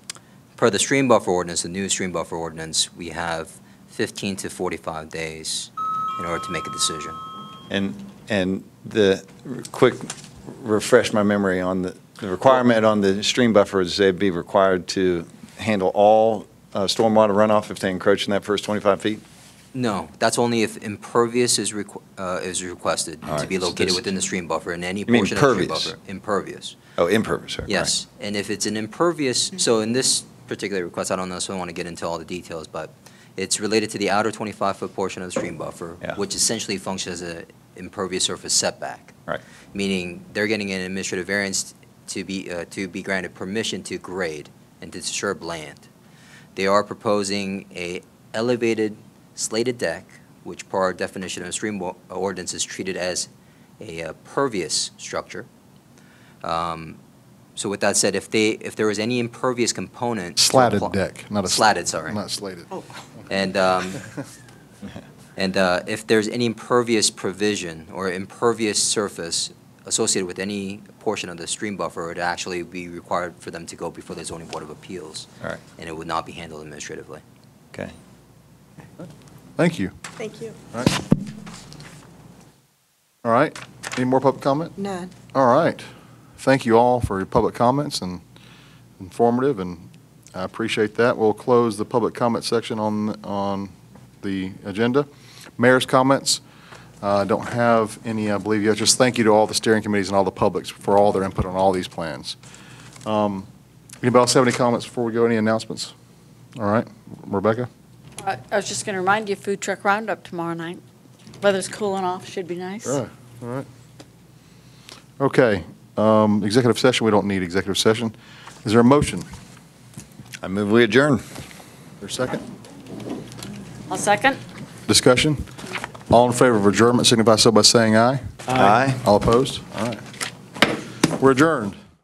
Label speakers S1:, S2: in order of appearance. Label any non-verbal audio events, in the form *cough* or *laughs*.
S1: per the stream buffer ordinance, the new stream buffer ordinance, we have 15 to 45 days in order to make a decision.
S2: And, and the, quick, refresh my memory on the, the requirement on the stream buffer is they'd be required to handle all uh, stormwater runoff if they encroach in that first 25 feet?
S1: No, that's only if impervious is requ- uh, is requested
S2: All
S1: to
S2: right,
S1: be
S2: so
S1: located
S2: this-
S1: within the stream buffer in any
S2: mean
S1: portion of the stream
S2: pervious?
S1: buffer. Impervious.
S2: Oh, impervious, sorry, right.
S1: Yes, and if it's an impervious, so in this particular request, I don't know, so I want to get into all the details, but it's related to the outer 25-foot portion of the stream buffer,
S2: Yeah.
S1: which essentially functions as an impervious surface setback.
S2: Right.
S1: Meaning they're getting an administrative variance to be, uh, to be granted permission to grade and to disturb land. They are proposing a elevated slated deck, which per our definition of stream wa- ordinance is treated as a uh, pervious structure. Um, So with that said, if they, if there was any impervious component. to
S3: Slatted
S1: apply-
S3: deck, not a. sl-
S1: Slatted, sorry.
S3: Not slated.
S1: And, um, and uh, if there's any impervious provision or impervious surface associated with any portion of the stream buffer, it'd actually be required for them to go before the zoning board of appeals.
S2: All right.
S1: And it would not be handled administratively.
S2: Okay.
S3: *laughs* Thank you.
S4: Thank you.
S3: All right. All right. Any more public comment?
S4: None.
S3: All right. Thank you all for your public comments and informative, and I appreciate that. We'll close the public comment section on, on the agenda. Mayor's comments, Uh, I don't have any, I believe yet. Just thank you to all the steering committees and all the publics for all their input on all these plans. Um, Anybody else have any comments before we go? Any announcements? All right. Rebecca?
S5: I I was just going to remind you, food truck roundup tomorrow night. Weather's cooling off, should be nice.
S3: All right, all right. Okay, um, executive session, we don't need executive session. Is there a motion? Is
S2: I move we adjourn.
S3: there a second?
S5: I'll second.
S3: Discussion? All in favor of adjournment signify so by saying aye.
S2: Aye.
S3: All opposed? All right. We're adjourned.